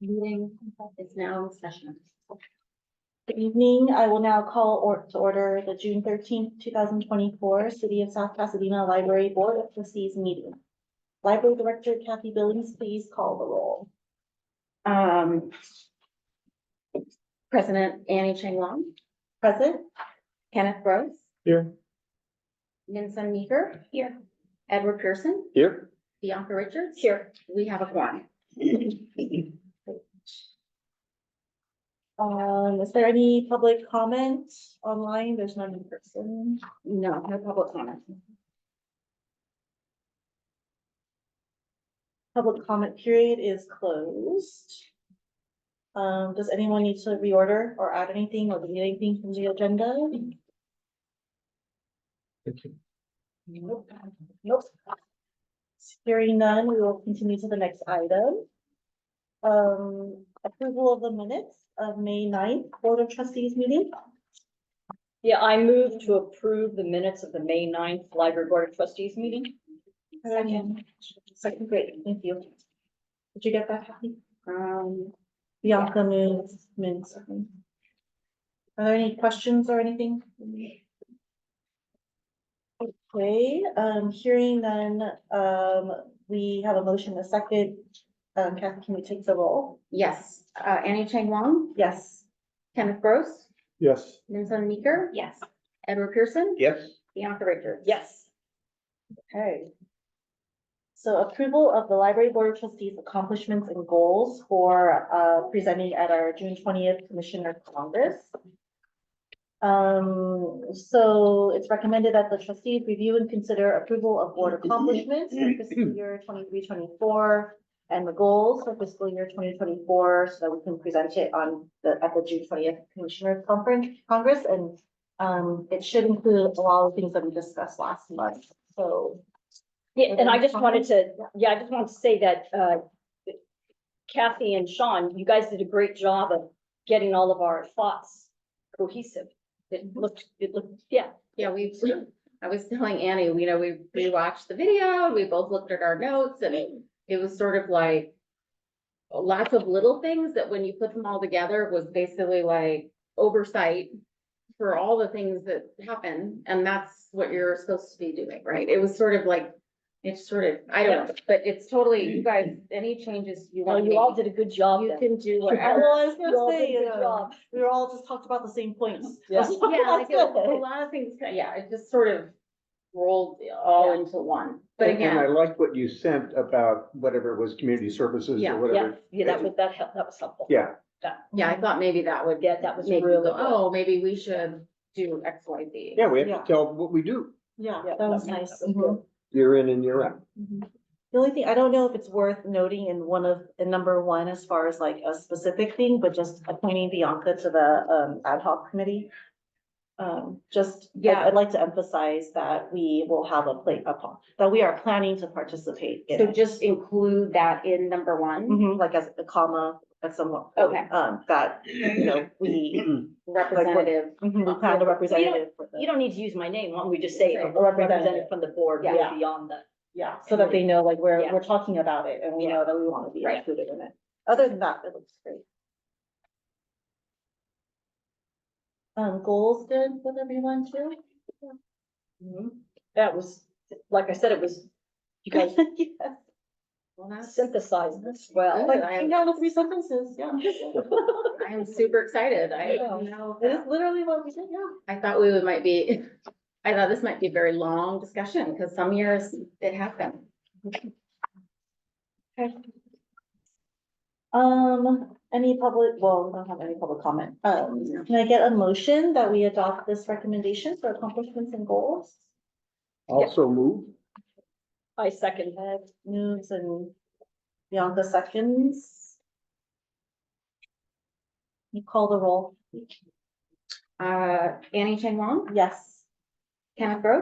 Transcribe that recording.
Meeting is now in session. Good evening. I will now call or to order the June thirteenth, two thousand twenty-four City of South Pasadena Library Board of Trustees meeting. Library Director Kathy Billings, please call the roll. Um. President Annie Chang Long, Present? Kenneth Rose. Here. Vincent Meeker. Here. Edward Pearson, Here? Bianca Richards. Here. We have a quorum. Um, is there any public comment online? There's none in person. No, no public comment. Public comment period is closed. Um, does anyone need to reorder or add anything or delete anything from the agenda? Nope. Hearing none, we will continue to the next item. Um, approval of the minutes of May 9th Board of Trustees meeting. Yeah, I move to approve the minutes of the May 9th Library Board of Trustees meeting. Second. Second, great, thank you. Did you get that, Kathy? Um, Bianca moves, moves. Are there any questions or anything? Okay, um, hearing none, um, we have a motion, a second. Um, Kathy, can we take the roll? yes, uh, Annie Chang Long, Yes. Kenneth Rose, Yes. Vincent Meeker. Yes. Edward Pearson. Yes. Bianca Richards. Yes. Okay. So approval of the library board of trustees accomplishments and goals for uh presenting at our June twentieth Commissioner Congress. Um, so it's recommended that the trustees review and consider approval of board accomplishments for fiscal year 23-24 And the goals for fiscal year twenty twenty-four, so that we can present it on the, at the June twentieth Commissioner Conference, Congress and. Um, it should include a lot of things that we discussed last month, so. Yeah, and I just wanted to, yeah, I just wanted to say that uh, Kathy and Sean, you guys did a great job of getting all of our thoughts cohesive. It looked, it looked, yeah, Yeah, we, I was telling Annie, you know, we, we watched the video, and we both looked at our notes and it, it was sort of like. Lots of little things that when you put them all together was basically like oversight. For all the things that happen, and that's what you're supposed to be doing, right? It was sort of like, it's sort of, I don't know, but it's totally, you guys, any changes you well, want. you all did a good job You then. can do I whatever. was You all gonna did say, you a good know, job. we were all just talked about the same points. Yeah. Yeah, like it was a Okay. lot of things, yeah, it just sort of rolled all Yeah. into one, but And- again. And I like what you sent about whatever it was, community services Yeah. or Yeah, whatever. yeah, that was, that helped, that was helpful. Yeah, Yeah, I thought maybe that would Yeah, that was make you really go, good. oh, maybe we should do X, Y, Z. yeah, we have Yeah. to tell what we do, Yeah, Yeah, that was that was- nice. that was Mhm. year in and year out. Mhm. The only thing, I don't know if it's worth noting in one of, in number one, as far as like a specific thing, but just appointing Bianca to the um ad hoc committee. Um, just, yeah, Yeah. I'd like to emphasize that we will have a plate upon, that we are planning to participate in. So it. just include that in number one, Mhm, like as a comma, at someone. Okay. Um, that, you know, we, representative. mhm, we plan a representative for You them. don't need to use my name, why don't we just say a Say representative. representative from the board, Yeah. yeah, beyond that. Yeah, so that they know like we're, Yeah. we're talking about it and we know that we want to be Right. included in it. Other than that, it looks great. Um, goals good with everyone too? Mm-hmm. That was, like I said, it was, you guys Yes. Well, that's- synthesized this well. Like, I- came down to three sentences, yeah. I am super excited. I Yeah. don't know. It is literally what we did, yeah. I thought we would might be, I thought this might be a very long discussion, because some years it has been. Um, any public, well, we don't have any public comment. Um, can I get a motion that we adopt this recommendation for accomplishments and goals? Also move, I second that. Ed moves and Bianca seconds. You call the roll. Uh, Annie Chang Wong, Yes. Kenneth Gross,